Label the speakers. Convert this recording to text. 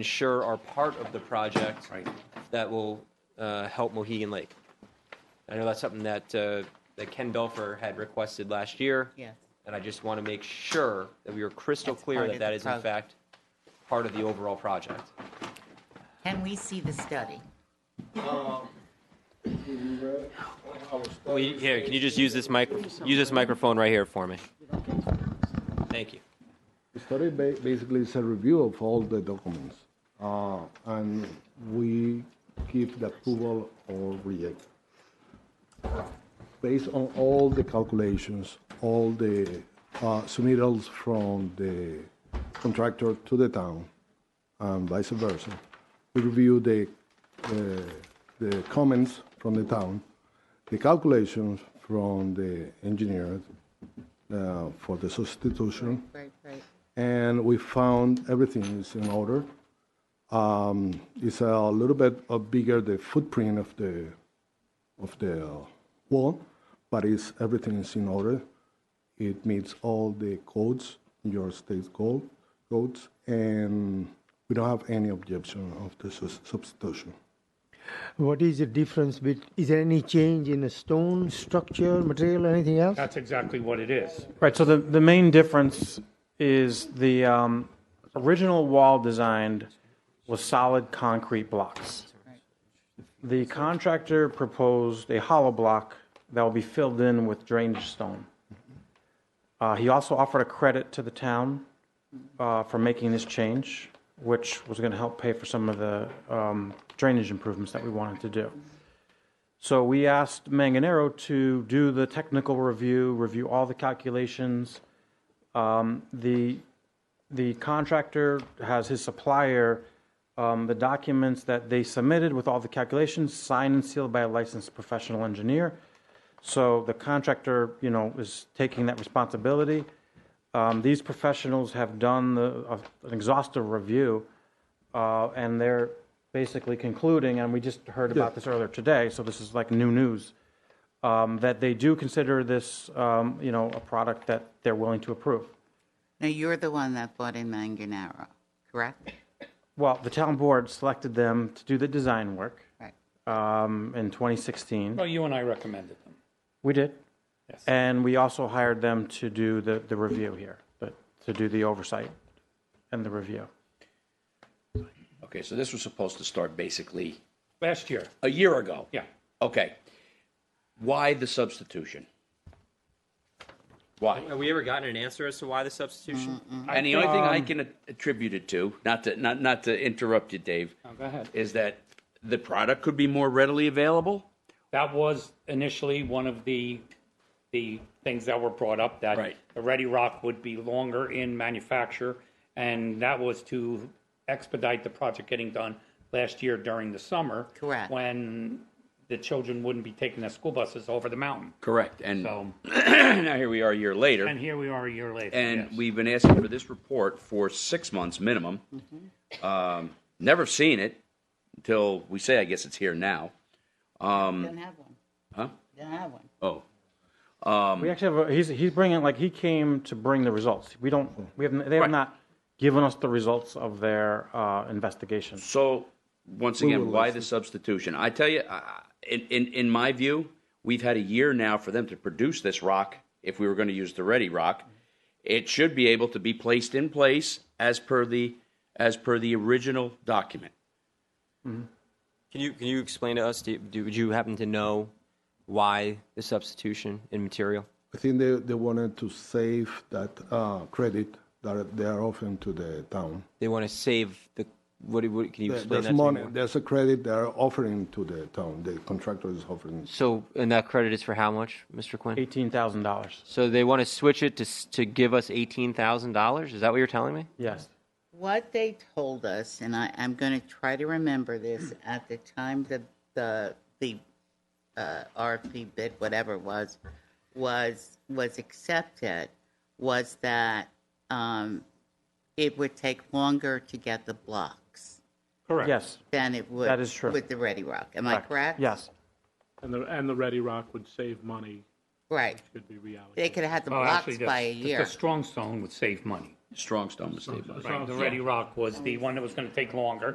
Speaker 1: ensure are part of the project
Speaker 2: Right.
Speaker 1: that will uh, help Mohegan Lake. I know that's something that uh, that Ken Belfer had requested last year.
Speaker 3: Yes.
Speaker 1: And I just want to make sure that we are crystal
Speaker 3: That's
Speaker 1: clear
Speaker 3: part
Speaker 1: that
Speaker 3: of
Speaker 1: that
Speaker 3: the
Speaker 1: is in
Speaker 3: pro-
Speaker 1: fact part of the overall project.
Speaker 3: Can we see the study?
Speaker 1: Well, you- Here, can you just use this mic, use this microphone right here for me? Thank you.
Speaker 4: The study ba- basically is a review of all the documents, uh, and we give the approval or reject. Based on all the calculations, all the uh, submittals from the contractor to the town, and vice versa, we review the, uh, the comments from the town, the calculations from the engineers uh, for the substitution,
Speaker 3: Right, right.
Speaker 4: and we found everything is in order. Um, it's a little bit uh, bigger the footprint of the of the uh, wall, but it's everything is in order. It meets all the codes, your state code codes, and we don't have any objection of the sus- substitution.
Speaker 5: What is the difference bet, is there any change in the stone structure, material, anything else?
Speaker 6: That's exactly what it is.
Speaker 7: Right, so the, the main difference is the um, original wall designed was solid concrete blocks. The contractor proposed a hollow block that will be filled in with drainage stone. Uh, He also offered a credit to the town uh, for making this change, which was going to help pay for some of the um, drainage improvements that we wanted to do. So we asked Manganero to do the technical review, review all the calculations. Um, the the contractor has his supplier um, the documents that they submitted with all the calculations signed and sealed by a licensed professional engineer. So the contractor, you know, is taking that responsibility. Um, these professionals have done the, uh, an exhaustive review, uh, and they're basically concluding, and we just heard about this earlier today, so this is like new news, um, that they do consider this, um, you know, a product that they're willing to approve.
Speaker 3: Now, you're the one that bought in Manganaro, correct?
Speaker 7: Well, the town board selected them to do the design work
Speaker 3: Right.
Speaker 7: um, in 2016.
Speaker 6: Well, you and I recommended them.
Speaker 7: We did.
Speaker 6: Yes.
Speaker 7: And we also hired them to do the, the review here, but to do the oversight and the review.
Speaker 2: Okay, so this was supposed to start basically
Speaker 6: Last year,
Speaker 2: a year ago.
Speaker 6: yeah.
Speaker 2: Okay. Why the substitution? Why?
Speaker 1: Have we ever gotten an answer as to why the substitution?
Speaker 2: And the only thing
Speaker 6: um
Speaker 2: I can attribute it to, not to not not to interrupt you, Dave,
Speaker 6: go ahead.
Speaker 2: is that the product could be more readily available.
Speaker 6: That was initially one of the, the things that were brought up, that
Speaker 2: Right.
Speaker 6: the Ready Rock would be longer in manufacture, and that was to expedite the project getting done last year during the summer.
Speaker 3: Correct.
Speaker 6: When the children wouldn't be taking their school buses over the mountain.
Speaker 2: Correct. And
Speaker 6: So,
Speaker 2: now here we are a year later,
Speaker 6: and
Speaker 2: and,
Speaker 6: here we are a year later. yes.
Speaker 2: we've been asking for this report for six months minimum.
Speaker 6: Mm-hmm.
Speaker 2: Um, never seen it until we say, I guess it's here now.
Speaker 7: Um,
Speaker 3: Don't have one.
Speaker 2: Huh?
Speaker 3: Don't have one.
Speaker 2: Oh,
Speaker 7: We actually have, a- he's, he's bringing, like, he came to bring the results. We don't, we have, they have
Speaker 2: Right.
Speaker 7: not given us the results of their uh, investigation.
Speaker 2: So, once again, why the substitution? I tell you, I- in, in, in my view, we've had a year now for them to produce this rock, if we were going to use the ready rock. It should be able to be placed in place as per the, as per the original document.
Speaker 1: Can you, can you explain to us, do, do- would you happen to know why the substitution in material?
Speaker 4: I think they, they wanted to save that uh, credit that they are offering to the town.
Speaker 1: They want to save the, what, what, can you explain
Speaker 4: There-
Speaker 1: that
Speaker 4: There's
Speaker 1: to me
Speaker 4: money,
Speaker 1: more?
Speaker 4: there's a credit they're offering to the town, the contractor is offering.
Speaker 1: So, and that credit is for how much, Mr. Quinn?
Speaker 7: $18,000.
Speaker 1: So they want to switch it to, s- to give us $18,000? Is that what you're telling me?
Speaker 7: Yes.
Speaker 3: What they told us, and I, I'm going to try to remember this, at the time the, the, the uh, RFP bid, whatever it was, was, was accepted, was that um, it would take longer to get the blocks
Speaker 8: Correct.
Speaker 7: Yes.
Speaker 3: than it would.
Speaker 7: That is true.
Speaker 3: With the Ready Rock. Am I correct?
Speaker 7: Yes.
Speaker 8: And the, and the Ready Rock would save money,
Speaker 3: Right.
Speaker 8: could be reallocated.
Speaker 3: They could have had the
Speaker 6: Well,
Speaker 3: blocks
Speaker 6: actually,
Speaker 3: by a
Speaker 6: the-
Speaker 3: year.
Speaker 6: The strong stone would save money.
Speaker 2: Strong stone was stabilized.
Speaker 6: Right, the Ready Rock was the one that was gonna take longer.